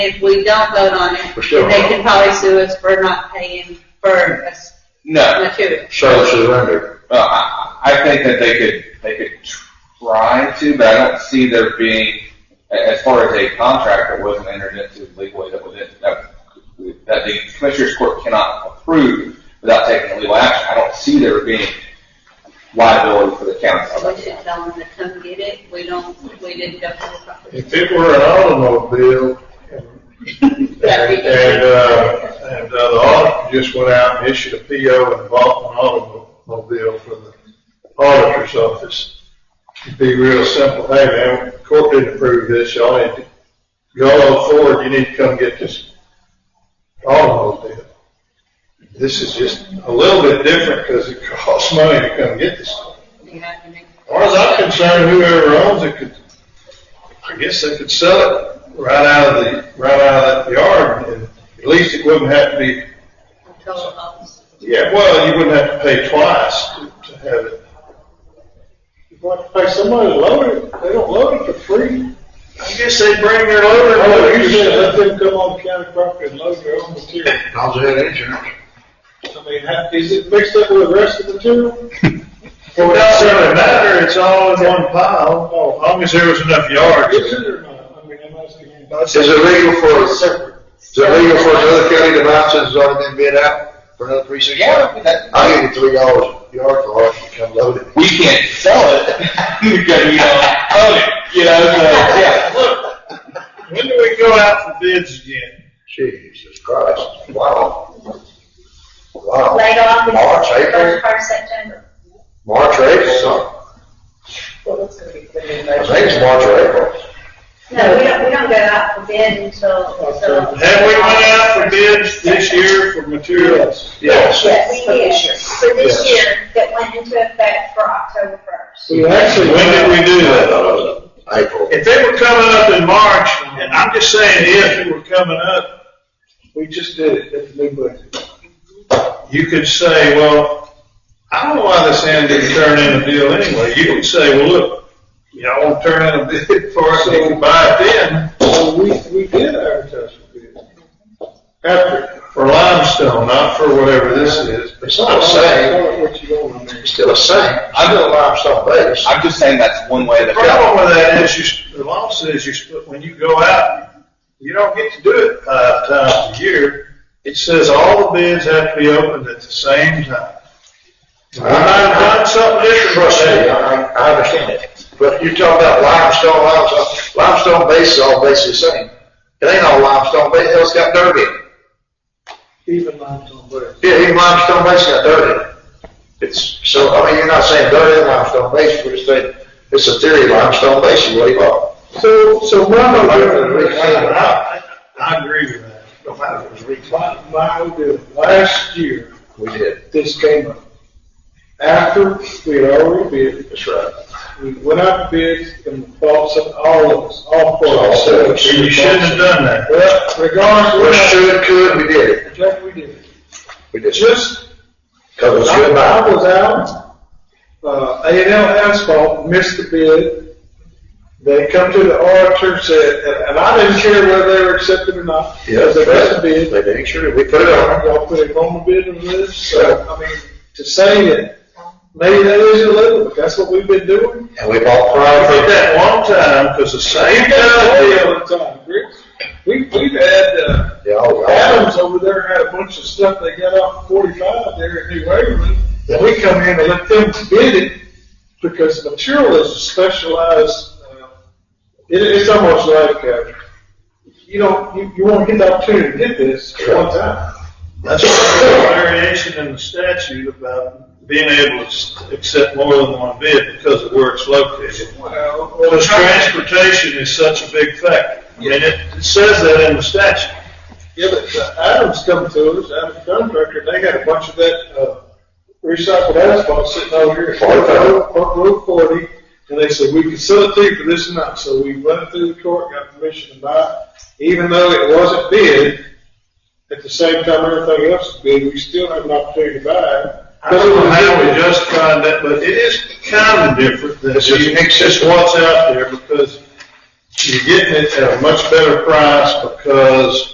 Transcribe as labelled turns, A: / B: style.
A: if we don't vote on it,
B: We're still
A: they
B: wrong.
A: could probably sue us for not paying for us
C: No,
A: material.
B: Show surrender.
C: well, I, I think that they could they could try to, but I don't see there being a- as far as a contract that wasn't entered into legally that was in, that, that the commissioners court cannot approve without taking legal action. I don't see there being liability for the county.
A: So we should tell them to come get it. We don't, we didn't go through the proper.
D: If it were an automobile, and, and, uh, and uh, the auditor just went out and issued a PO and bought an automobile for the auditor's office, it'd be real simple, hey man, court didn't approve this, y'all need to, y'all owe Ford, you need to come get this automobile. This is just a little bit different, cause it costs money to come get this.
A: You have to make-
D: As far as I'm concerned, whoever owns it could, I guess they could sell it right out of the, right out of that yard, and at least it wouldn't have to be,
A: control of us.
D: yeah, well, you wouldn't have to pay twice to to have it. You want to pay somebody to load it, they don't load it for free. I guess they bring their loader, and Oh, you said let them come on county property and load their own material.
B: How's that insurance?
D: I mean, ha- is it mixed up with the rest of the material? Well, it doesn't really matter, it's all in one pile. Oh, as long as there was enough yards. Is it or not? I mean, I'm asking.
B: Is it legal for, is it legal for another county to buy since it's already been bid out for another precinct?
C: that,
B: I'll give you three dollars a yard for it, you come load it.
C: we can't sell it because we don't own it. You know, so yeah. Look,
D: uh, When do we go out for bids again?
B: Jesus Christ, wow. Wow.
E: laid off in
B: March,
E: the
B: April,
E: first part of September.
B: March, April, something. I think it's March or April.
E: No, we don't, we don't go out for bid until, until.
D: Have we went out for bids this year for materials?
B: Yes.
E: Yes, we did, for this year, that went into effect for October first.
D: We actually. When did we do that?
B: April.
D: If they were coming up in March, and I'm just saying if it were coming up, we just did it at the new budget. You could say, well, I don't know why this hand didn't turn in a deal anyway. You could say, well, look, y'all won't turn in a bid for us, you can buy it then. So we, we did advertise for bid. After, for limestone, not for whatever this is.
B: It's not the same. It's still the same. I know limestone base.
C: I'm just saying that's one way
D: The
C: that.
D: problem with that is, you, s- the law says you split, when you go out, you don't get to do it five times a year. It says all the bids have to be opened at the same time. When I've done something different.
B: Trust me, I, I understand it. But you talk about limestone, limestone, limestone base is all basically the same. It ain't all limestone base, it's got dirt in it.
D: Even limestone bricks.
B: Yeah, even limestone base got dirt in it. It's, so, I mean, you're not saying dirt in limestone base, we're just saying, it's a theory, limestone base is what you bought.
D: So, so my
B: opinion-
D: I, I agree with that.
B: No matter if it was
D: My,
B: reclaimed.
D: my, idea, last year,
B: We did,
D: this came up. After we had already bid,
B: that's right.
D: we went out to bids and bought some, all of us, all four of us.
B: So, so you shouldn't
D: have done that. Well,
B: We
D: regardless,
B: should, could, we did it.
D: what Jack, we did.
B: We did. it.
D: Just,
B: Cause it was
D: I
B: good
D: I
B: buy.
D: was out, uh, A and L asphalt, missed the bid. They come to the auditor, said, and- and I didn't care whether they were accepted or not.
B: Yeah,
D: They got the bid,
B: They did, sure, we put it on.
D: y'all put it on the bid list, so, I mean, to say that, maybe that is illegal, but that's what we've been doing.
B: And we bought prime.
D: I did that one time, because the same guy We, we've had, uh,
B: Yeah, all right.
D: Adams over there had a bunch of stuff they got off forty-five there in New Waverly. And we come in and let them bid it, because the material is a specialized, uh, it, it's almost like, uh, you don't, you, you won't get the opportunity to get this at one time. That's a variation in the statute about being able to accept more than one bid because of where it's located. Well. Because transportation is such a big factor, and it it says that in the statute. Yeah, but uh, Adams come to us, Adams contractor, they had a bunch of that, uh, recycled asphalt sitting over here.
B: Forty thousand.
D: Forty, Road forty, and they said, we can sell it to you for this amount, so we went through the court, got permission to buy it, even though it wasn't bid, at the same time everything else is bid, we still have an opportunity to buy it. I don't know how we justified that, but it is kinda different, than
B: It's just-
D: you- it's just what's out there, because you're getting it at a much better price because